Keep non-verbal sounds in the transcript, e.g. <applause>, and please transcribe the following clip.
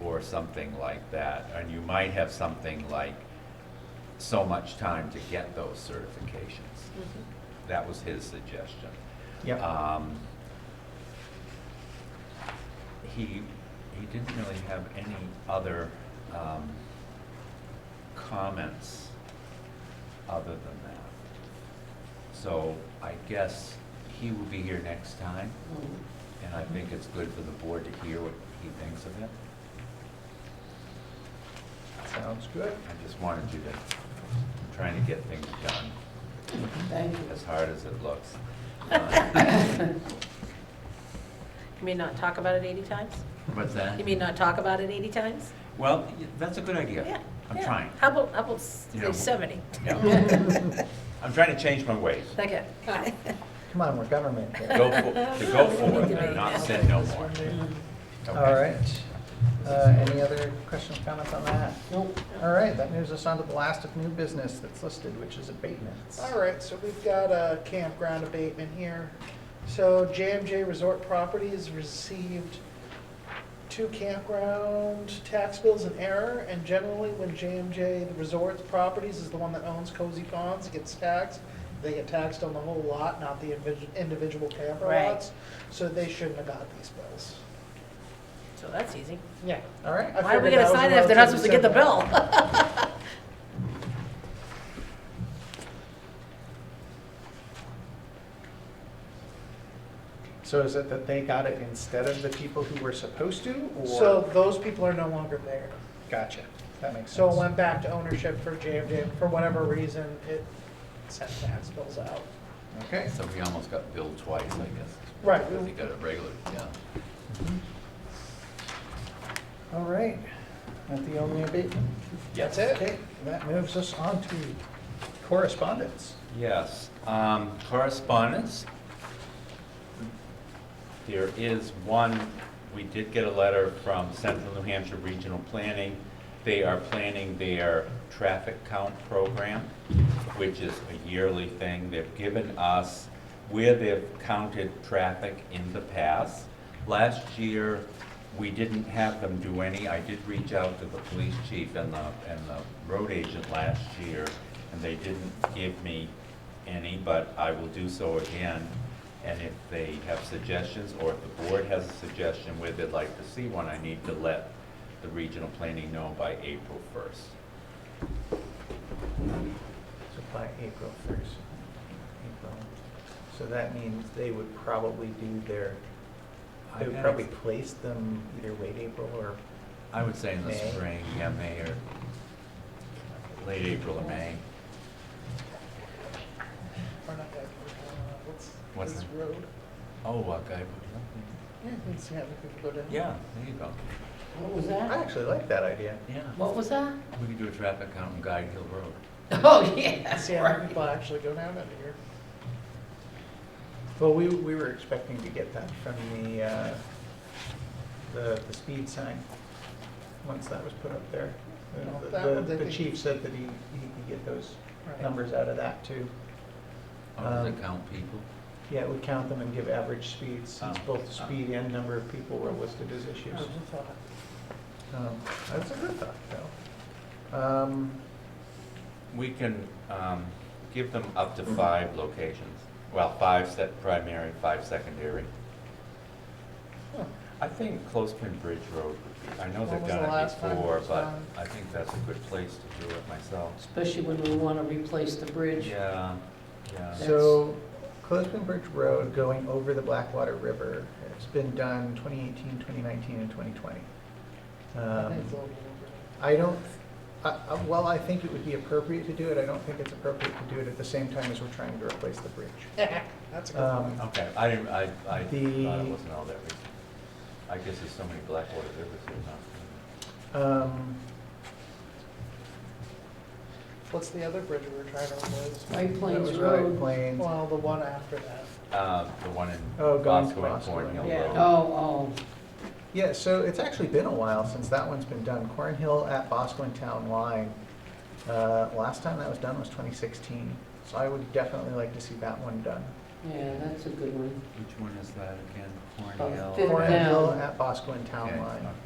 or something like that. And you might have something like so much time to get those certifications. That was his suggestion. Yep. Um, He, he didn't really have any other um, comments other than that. So I guess he will be here next time, and I think it's good for the board to hear what he thinks of it. Sounds good. I just wanted you to, I'm trying to get things done, Thank you. as hard as it looks. Uh, You mean not talk about it 80 times? What's that? You mean not talk about it 80 times? Well, y- that's a good idea. Yeah. I'm yeah. trying. How about, how about s- You know. 70? <laughs> Yeah. I'm trying to change my ways. Okay. Come on, we're government. here. Go for, to <laughs> go forward and not say no more. All Okay. right. Uh, Any other questions, comments on that? Nope. All right, that moves us on to the last of new business that's listed, which is abatements. All right, so we've got a campground abatement here. So JMJ Resort Properties received two campground tax bills in error, and generally when JMJ Resort Properties is the one that owns Cozy Ponds, it gets taxed, they get taxed on the whole lot, not the invi- individual camper Right. lots. So they shouldn't have got these bills. So that's easy. Yeah. All right. I Why are we figured going that to was sign a it if they're not supposed to relatively get the simple- bill? So is it that they got it instead of the people who were supposed to, or? So those people are no longer there. Gotcha. That makes sense. So it went back to ownership for JMJ, for whatever reason, it sent tax bills out. Okay. So we almost got billed twice, I guess. Right. Because he got it regular, yeah. All right. That the only abatement? That's it? Okay, that moves us on to correspondence. Yes, um, correspondence. There is one, we did get a letter from Central New Hampshire Regional Planning. They are planning their traffic count program, which is a yearly thing. They've given us where they've counted traffic in the past. Last year, we didn't have them do any. I did reach out to the police chief and the, and the road agent last year, and they didn't give me any, but I will do so again. And if they have suggestions, or if the board has a suggestion where they'd like to see one, I need to let the regional planning know by April first. So by April 1st. April. So that means they would probably do their, they would probably place them either late April or, I would say in the May. spring, yeah, May or late April or May. Or not that, uh, what's, What's this that? road? Oh, what guy? Yeah, you can see how many people go down. Yeah, there you go. What was I that? actually like that idea. Yeah, <laughs> What was that? we could do a traffic count on Guide Hill Road. Oh, <laughs> yeah. See how many people actually go down under here. Well, we, we were expecting to get that from the, uh, the, the speed sign, once that was put up there. The- No, the- that one The they the could- chief said that he, he could get those Right. numbers out of that too. Or does it Um, count people? Yeah, it would count them and give average speeds, since Oh, both oh. speed and number of people were listed as I issues. was just thought, Um, That's a good thought, though. Um, We can um, give them up to five locations. Well, five set primary, five secondary. huh, I think Clothespin Bridge Road, would be- I know When they've was the done it last time it before, was but done? I think that's a good place to do it myself. Especially when we want to replace the bridge. Yeah, yeah. So, Clothespin Bridge Road going over the Blackwater River, it's been done 2018, 2019, and 2020. I think Um, it's a little over I don't, I- I- while I think it would be appropriate to do it, I don't think it's appropriate to do it at the same time as we're trying to replace the bridge. there. <laughs> That's a good Um, one. Okay, I didn't, I, I thought The- it wasn't all that recent. I guess there's so many Blackwater rivers here now. Um, What's the other bridge we were trying to replace? White That Plains was White Road. Plains. Well, the one after that. Uh, The one in Oh, going to Bosco and Bosco. Cornhill Yeah, Road. oh, oh, Yeah, so it's actually been a while since that one's been done. Cornhill at Bosquen Town Line, uh, last time that was done was 2016. So I would definitely like to see that one done. yeah, that's a good one. Which one is that again? Oh, Cornhill? Fifth and- Avenue. Cornhill at Bosquen Town Okay, Line. okay.